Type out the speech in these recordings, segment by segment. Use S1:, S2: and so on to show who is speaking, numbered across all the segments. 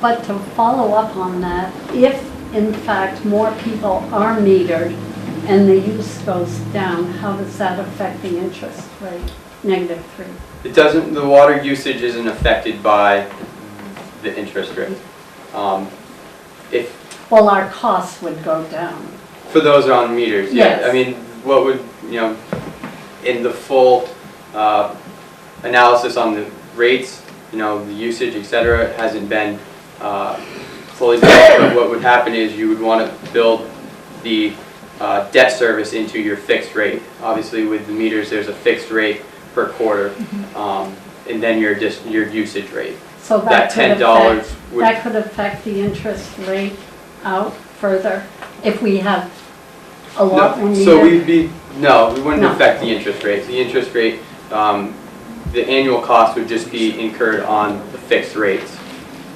S1: But to follow up on that, if in fact more people are metered and the use goes down, how does that affect the interest rate? Negative three.
S2: It doesn't, the water usage isn't affected by the interest rate. Um, If,
S1: Well, our costs would go down.
S2: for those on meters, yeah.
S1: Yes.
S2: I mean, what would, you know, in the full uh, analysis on the rates, you know, the usage, et cetera, hasn't been uh, fully built. But what would happen is you would want to build the uh, debt service into your fixed rate. Obviously, with the meters, there's a fixed rate per quarter,
S1: Mm-hmm.
S2: um, and then your, dis- your usage rate.
S1: So
S2: That
S1: that could
S2: ten
S1: affect,
S2: dollars would,
S1: that could affect the interest rate out further if we have a lot more
S2: no,
S1: metered.
S2: so we'd be, no, we wouldn't
S1: No.
S2: affect the interest rate. The interest rate, um, the annual cost would just be incurred on the fixed rates,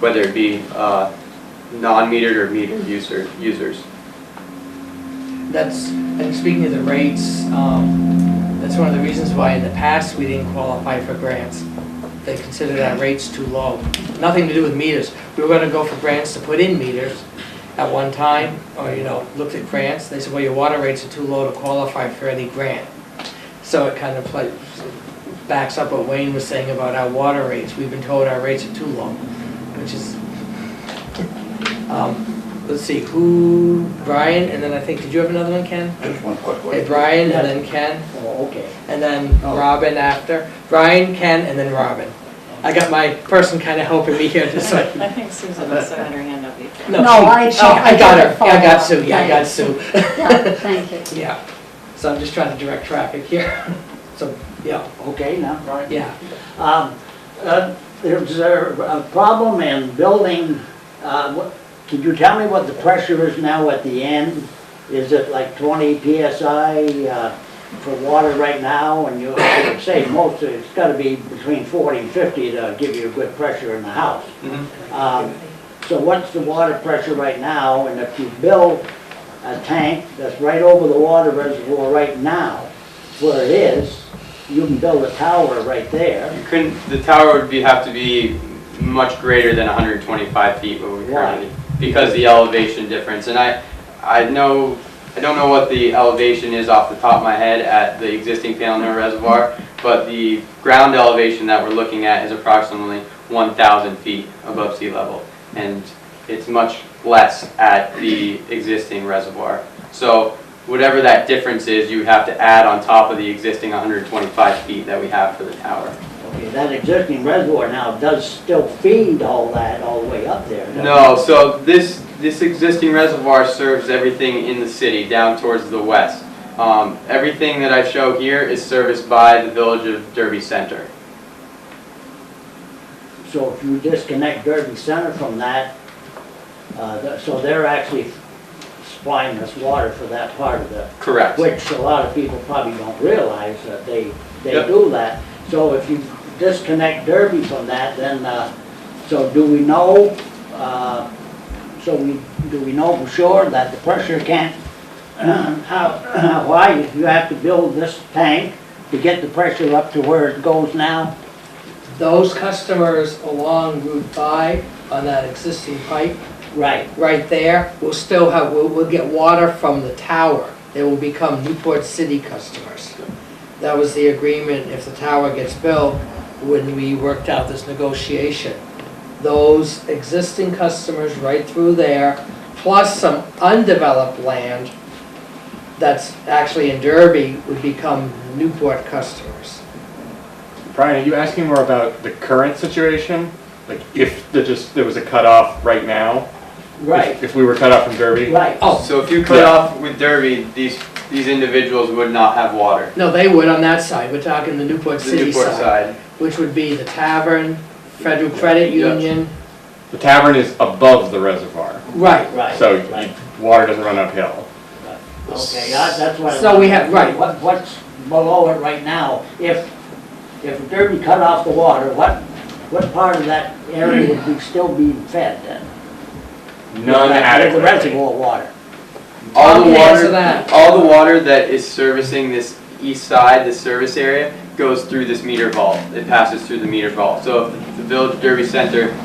S2: whether it be, uh, non-metered or metered user, users.
S3: That's, and speaking of the rates, um, that's one of the reasons why in the past we didn't qualify for grants. They considered our rates too low. Nothing to do with meters. We were gonna go for grants to put in meters at one time, or, you know, looked at grants. They said, well, your water rates are too low to qualify for any grant. So it kind of like backs up what Wayne was saying about our water rates. We've been told our rates are too low, which is, um, let's see, who, Brian, and then I think, did you have another one, Ken?
S4: Just one quick
S3: Okay,
S4: one.
S3: Brian and then Ken,
S4: Oh, okay.
S3: and then
S4: Oh.
S3: Robin after. Brian, Ken, and then Robin. I got my person kind of helping me here, just like,
S5: I think Susan also had her hand up before.
S3: no,
S1: No,
S3: she-
S1: I- she-
S3: oh, I got her, yeah, I got
S1: follow
S3: Sue,
S1: up.
S3: yeah, I got Sue.
S1: Yeah, thank you.
S3: Yeah, so I'm just trying to direct traffic here, so, yeah,
S4: Okay, now, Brian.
S3: yeah.
S4: Um, uh, There's a a problem in building, uh, what- can you tell me what the pressure is now at the end? Is it like 20 PSI uh, for water right now? And you I would say most, of it's got to be between 40 and 50 to give you a good pressure in the house.
S2: Mhm.
S4: Um, So what's the water pressure right now? And if you build a tank that's right over the water reservoir right now, where it is, you can build a tower right there.
S2: You couldn't, the tower would be, have to be much greater than hundred and twenty-five feet what we
S4: Why?
S2: currently, because the elevation difference, and I, I know, I don't know what the elevation is off the top of my head at the existing Palinur Reservoir, but the ground elevation that we're looking at is approximately one thousand feet above sea level, and it's much less at the existing reservoir. So whatever that difference is, you would have to add on top of the existing hundred and twenty-five feet that we have for the tower.
S4: Okay, that existing reservoir now does still feed all that all the way up there. doesn't it?
S2: No, so this, this existing reservoir serves everything in the city down towards the west. Um, everything that I show here is serviced by the village of Derby Center.
S4: So if you disconnect Derby Center from that, uh, th- so they're actually supplying us water for that part of the,
S2: Correct.
S4: which a lot of people probably don't realize that they, they
S2: Yep.
S4: do that. So if you disconnect Derby from that, then, uh, so do we know, uh, so we, do we know for sure that the pressure can't, how, why you have to build this tank to get the pressure up to where it goes now?
S3: Those customers along Route 5 on that existing pipe,
S4: Right,
S3: right there, will still have, will, will get water from the tower. They will become Newport City customers. That was the agreement, if the tower gets built, when we worked out this negotiation. Those existing customers right through there, plus some undeveloped land that's actually in Derby, would become Newport customers.
S6: Brian, are you asking more about the current situation? Like if the just there was a cutoff right now? If-
S4: right,
S6: If we were cut off from Derby?
S4: right.
S3: Oh,
S2: So if you cut
S6: Yeah.
S2: off with Derby, these, these individuals would not have water.
S3: No, they would on that side, we're talking the Newport
S2: The
S3: City
S2: Newport
S3: side,
S2: side.
S3: which would be the tavern, Federal Credit
S2: Yeah.
S3: Union.
S6: The tavern is above the reservoir,
S3: Right,
S4: Right,
S6: so
S4: right.
S6: you- water doesn't run uphill.
S4: Okay, I- that's what. I
S3: So we have-
S4: wondered,
S3: right.
S4: What, what's below it right now? If, if Derby cut off the water, what, what part of that area would be still being fed then?
S6: None
S4: That-
S6: adequately.
S4: The reservoir water.
S2: All
S3: Tom
S2: the
S3: can
S2: water,
S3: answer that.
S2: all the water that is servicing this east side, this service area, goes through this meter vault. It passes through the meter vault. So if the village Derby Center